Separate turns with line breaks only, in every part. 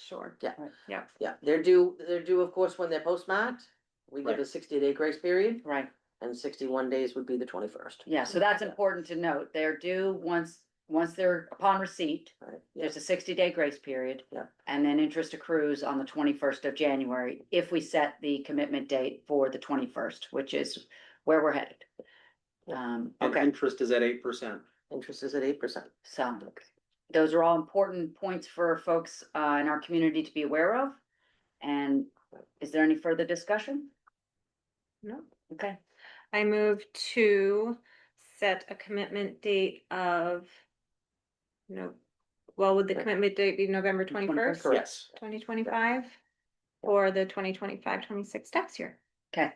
sure.
Yeah, they're due, they're due, of course, when they're postmarked. We give a sixty day grace period
Right,
and sixty one days would be the twenty first.
yeah, so that's important to note. They're due once, once they're upon receipt. There's a sixty day grace period.
Yeah.
And then interest accrues on the twenty first of January if we set the commitment date for the twenty first, which is where we're headed.
Yeah.
Um,
And
okay,
interest is at eight percent.
Interest is at eight percent.
so those are all important points for folks uh in our community to be aware of. And is there any further discussion?
No.
Okay,
I move to set a commitment date of. No, well, would the
Right.
commitment date be November twenty
21st,
first,
correct.
Yes.
twenty twenty five? For the 2025-26 tax year.
okay.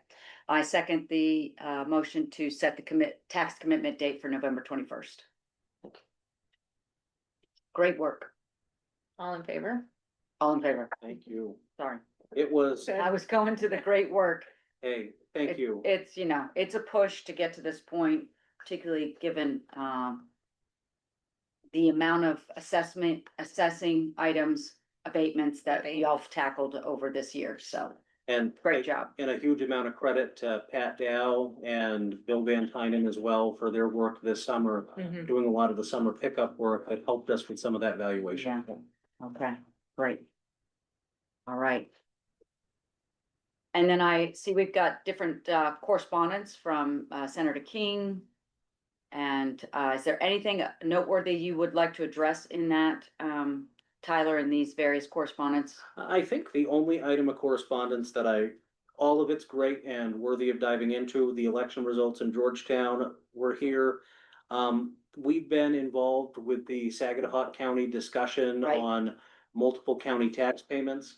I second the uh motion to set the commit, tax commitment date for November twenty first. Great work.
All in favor?
All in favor?
Thank you.
Sorry.
It was,
I was going to the great work.
hey,
It-
thank you.
It's, you know, it's a push to get to this point, particularly given, um, the amount of assessment, assessing items, abatements that y'all have tackled over this year, so
And.
great job.
And a huge amount of credit to Pat Dow and Bill Van Tynen as well for their work this summer.
Mm-hmm.
Doing a lot of the summer pickup work that helped us with some of that valuation.
Okay, great. All right. And then I see we've got different uh, correspondence from uh, Senator King. And uh, is there anything noteworthy you would like to address in that, um, Tyler, in these various correspondence?
I think the only item of correspondence that I, all of it's great and worthy of diving into, the election results in Georgetown were here. Um, we've been involved with the Saginaw County discussion
Right.
on multiple county tax payments.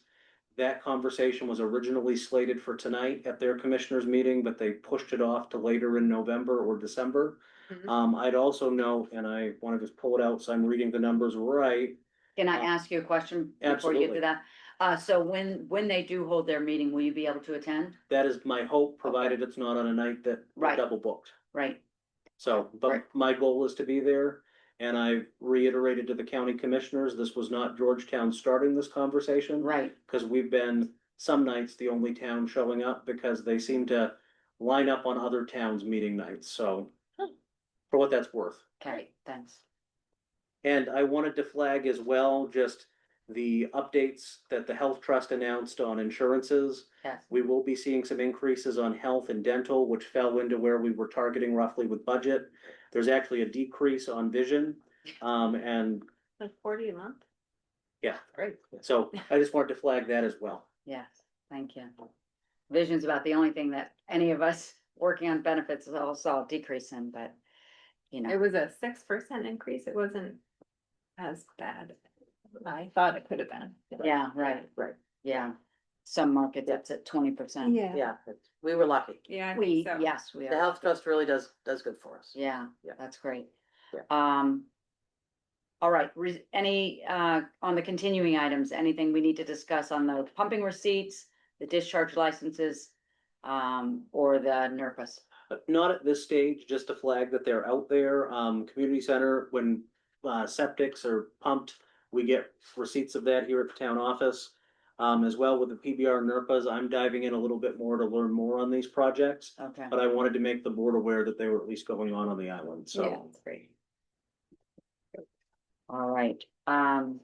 That conversation was originally slated for tonight at their commissioners meeting, but they pushed it off to later in November or December.
Mhm.
Um, I'd also note, and I want to just pull it out, so I'm reading the numbers right,
Can I
Uh,
ask you a question before you get
absolutely.
to that? Uh, So when, when they do hold their meeting, will you be able to attend?
That is my hope, provided it's not on a night that
Right.
we're double booked.
Right,
So,
Right.
but my goal is to be there. And I reiterated to the county commissioners, this was not Georgetown starting this conversation.
right,
Cause we've been some nights the only town showing up because they seem to line up on other towns' meeting nights, so. For what that's worth.
okay, thanks.
And I wanted to flag as well, just the updates that the health trust announced on insurances.
Yes,
We will be seeing some increases on health and dental, which fell into where we were targeting roughly with budget. There's actually a decrease on vision. Um, and
Like forty a month?
Yeah.
Great.
so I just wanted to flag that as well.
yes, thank you. Vision's about the only thing that any of us working on benefits is all saw a decrease in, but, you
It
know,
was a six percent increase. It wasn't as bad. as I thought it could have been.
yeah, right,
Right,
yeah. Some market that's at twenty percent.
Yeah.
yeah, it's- we were lucky.
Yeah. I think
We,
so.
yes, we
The
are,
health trust really does, does good for us.
yeah,
Yeah.
that's great.
Yeah.
Um. All right, re- any, uh, on the continuing items, anything we need to discuss on the pumping receipts, the discharge licenses? Um, or the NERPAs?
But not at this stage, just to flag that they're out there. Um, community center, when uh, septics are pumped, we get receipts of that here at the town office. Um, as well with the PBR NERPAs, I'm diving in a little bit more to learn more on these projects,
Okay.
but I wanted to make the board aware that they were at least going on on the island,
Yeah,
so.
it's great.
All right, um,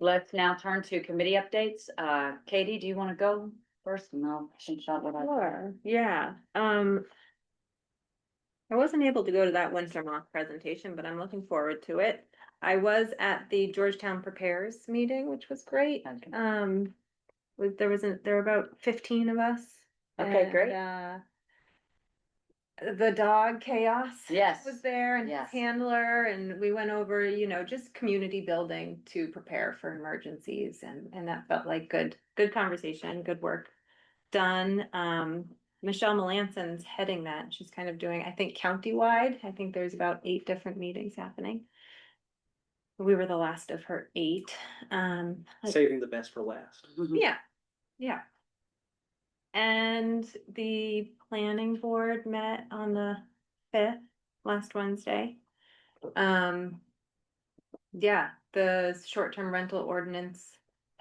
let's now turn to committee updates. Uh, Katie, do you wanna go first? And I'll finish out what I.
Sure, yeah, um. I wasn't able to go to that Winter Moth presentation, but I'm looking forward to it. I was at the Georgetown Prepares meeting, which was great.
Okay.
Um, was, there was, a- there were about fifteen of us.
Okay,
and,
great.
uh, The dog chaos.
Yes.
Was there and his
Yes.
handler and we went over, you know, just community building to prepare for emergencies and, and that felt like good, good conversation, good work done. Um, Michelle Melanson's heading that. She's kind of doing, I think, countywide. I think there's about eight different meetings happening. We were the last of her eight. Um,
Saving the best for last.
yeah, yeah. And the planning board met on the fifth, last Wednesday. Um. Yeah, the short-term rental ordinance